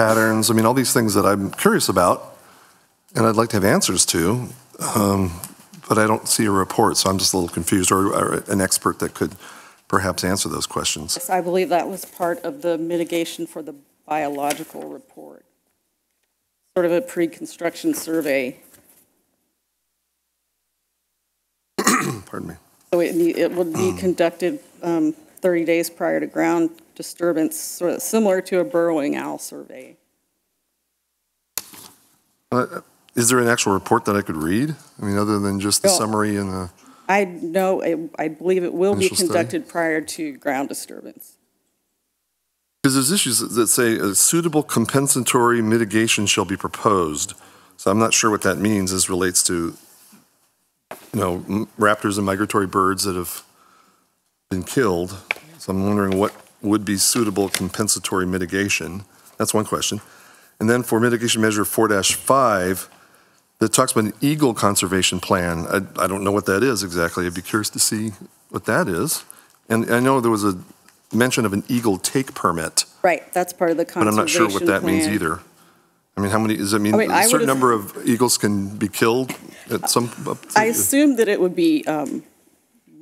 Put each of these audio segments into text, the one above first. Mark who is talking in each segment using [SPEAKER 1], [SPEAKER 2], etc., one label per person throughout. [SPEAKER 1] patterns. I mean, all these things that I'm curious about and I'd like to have answers to, um, but I don't see a report, so I'm just a little confused, or, or an expert that could perhaps answer those questions.
[SPEAKER 2] Yes, I believe that was part of the mitigation for the biological report, sort of a pre-construction survey.
[SPEAKER 1] Pardon me.
[SPEAKER 2] So it, need- it would
[SPEAKER 1] Hmm.
[SPEAKER 2] be conducted um, 30 days prior to ground disturbance, sort of similar to a burrowing owl survey.
[SPEAKER 1] Uh, Is there an actual report that I could read? I mean, other than just the
[SPEAKER 2] No.
[SPEAKER 1] summary and the,
[SPEAKER 2] I know, I- I believe it will be
[SPEAKER 1] Initial study?
[SPEAKER 2] conducted prior to ground disturbance.
[SPEAKER 1] because there's issues that- that say a suitable compensatory mitigation shall be proposed. So I'm not sure what that means as relates to, you know, m- raptors and migratory birds that have been killed. So I'm wondering what would be suitable compensatory mitigation? That's one question. And then for mitigation measure 4-5, that talks about an eagle conservation plan. I, I don't know what that is exactly. I'd be curious to see what that is. And I know there was a mention of an eagle take permit,
[SPEAKER 2] Right, that's part of the
[SPEAKER 1] but I'm
[SPEAKER 2] conservation
[SPEAKER 1] not sure what that means
[SPEAKER 2] plan.
[SPEAKER 1] either. I mean, how many, does that mean
[SPEAKER 2] I mean, I
[SPEAKER 1] a certain
[SPEAKER 2] would've-
[SPEAKER 1] number of eagles can be killed at some? up to-
[SPEAKER 2] I assume that it would be um,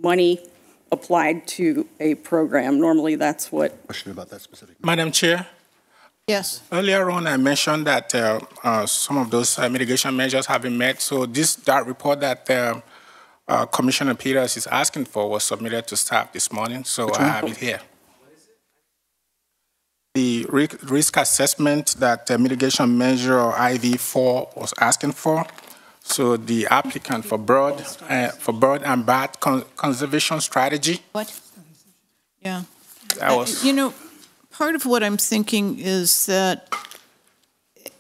[SPEAKER 2] money applied to a program. Normally, that's what,
[SPEAKER 3] question about that specific.
[SPEAKER 4] Madam Chair,
[SPEAKER 5] Yes.
[SPEAKER 4] earlier on I mentioned that uh, uh, some of those uh, mitigation measures have been met. So this that report that um uh, Commissioner Peters is asking for was submitted to staff this morning. So I have it here. The ri- risk assessment that uh, mitigation measure IV4 was asking for. So the applicant for bird uh, for bird and bat con- conservation strategy.
[SPEAKER 5] What? Yeah.
[SPEAKER 4] That was
[SPEAKER 5] Uh, You know, part of what I'm thinking is that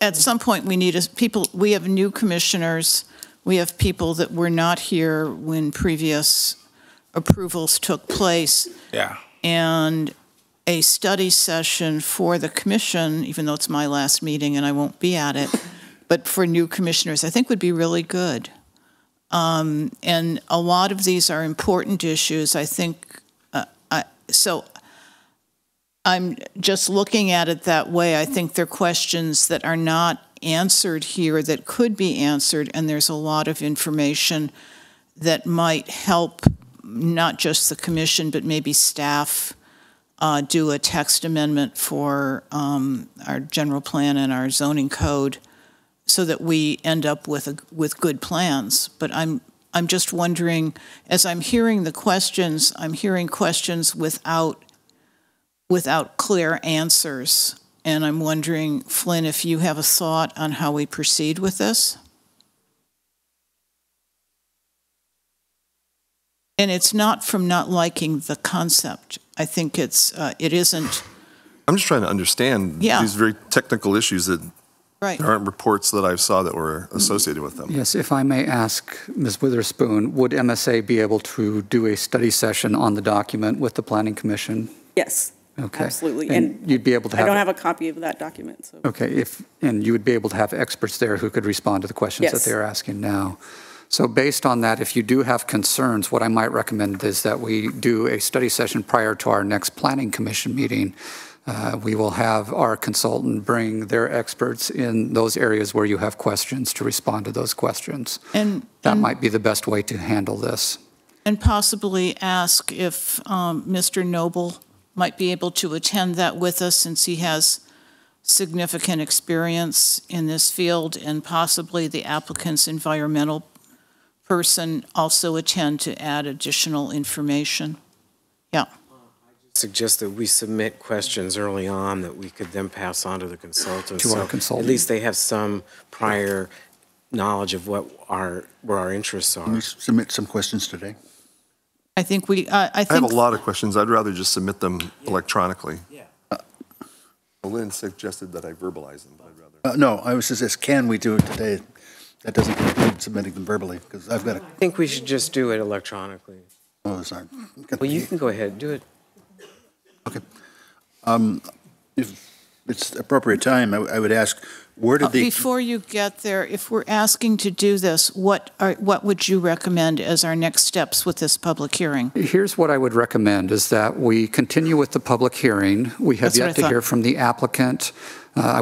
[SPEAKER 5] at some point we need, a- people, we have new commissioners, we have people that were not here when previous approvals took place,
[SPEAKER 4] yeah.
[SPEAKER 5] and a study session for the commission, even though it's my last meeting and I won't be at it, but for new commissioners, I think would be really good. Um, and a lot of these are important issues. I think, uh, I, so I'm just looking at it that way. I think they're questions that are not answered here that could be answered, and there's a lot of information that might help not just the commission, but maybe staff uh, do a text amendment for um, our general plan and our zoning code so that we end up with a, with good plans. But I'm I'm just wondering, as I'm hearing the questions, I'm hearing questions without without clear answers. And I'm wondering, Flynn, if you have a thought on how we proceed with this? And it's not from not liking the concept. I think it's, uh, it isn't,
[SPEAKER 1] I'm just trying to understand
[SPEAKER 5] Yeah.
[SPEAKER 1] these very technical issues that
[SPEAKER 5] right.
[SPEAKER 1] there aren't reports that I saw that were associated with them.
[SPEAKER 6] Yes, if I may ask Ms. Witherspoon, would MSA be able to do a study session on the document with the Planning Commission?
[SPEAKER 2] yes,
[SPEAKER 6] Okay.
[SPEAKER 2] absolutely.
[SPEAKER 6] And
[SPEAKER 2] And
[SPEAKER 6] you'd be able to
[SPEAKER 2] I
[SPEAKER 6] have.
[SPEAKER 2] don't have a copy of that document, so.
[SPEAKER 6] Okay, if, and you would be able to have experts there who could respond to the questions that
[SPEAKER 2] Yes.
[SPEAKER 6] they're asking now. So based on that, if you do have concerns, what I might recommend is that we do a study session prior to our next Planning Commission meeting. Uh, We will have our consultant bring their experts in those areas where you have questions to respond to those questions.
[SPEAKER 5] And-
[SPEAKER 6] That might be the best way to handle this.
[SPEAKER 5] And possibly ask if um, Mr. Noble might be able to attend that with us since he has significant experience in this field and possibly the applicant's environmental person also attend to add additional information. Yeah,
[SPEAKER 7] suggest that we submit questions early on that we could then pass on to the consultants.
[SPEAKER 6] To our
[SPEAKER 7] So
[SPEAKER 6] consultant.
[SPEAKER 7] At least they have some prior knowledge of what our, where our interests
[SPEAKER 3] Can
[SPEAKER 7] are.
[SPEAKER 3] you submit some questions today?
[SPEAKER 5] I think we, I I
[SPEAKER 1] I have
[SPEAKER 5] think.
[SPEAKER 1] a lot of questions. I'd rather just submit them electronically. Yeah. Lynn suggested that I verbalize them, but I'd rather.
[SPEAKER 3] Uh, No, I was just, asked, can we do it today? That doesn't include submitting them verbally, because I've got, a-
[SPEAKER 7] I think we should just do it electronically.
[SPEAKER 3] oh, those aren't.
[SPEAKER 7] Well, you can go ahead, do it.
[SPEAKER 3] Okay. Um, If it's appropriate time, I w- I would ask, where
[SPEAKER 5] Uh,
[SPEAKER 3] did the,
[SPEAKER 5] Before you get there, if we're asking to do this, what are, what would you recommend as our next steps with this public hearing?
[SPEAKER 6] Here's what I would recommend, is that we continue with the public hearing. We have
[SPEAKER 5] That's what I
[SPEAKER 6] yet to
[SPEAKER 5] thought.
[SPEAKER 6] hear from the applicant. Uh, I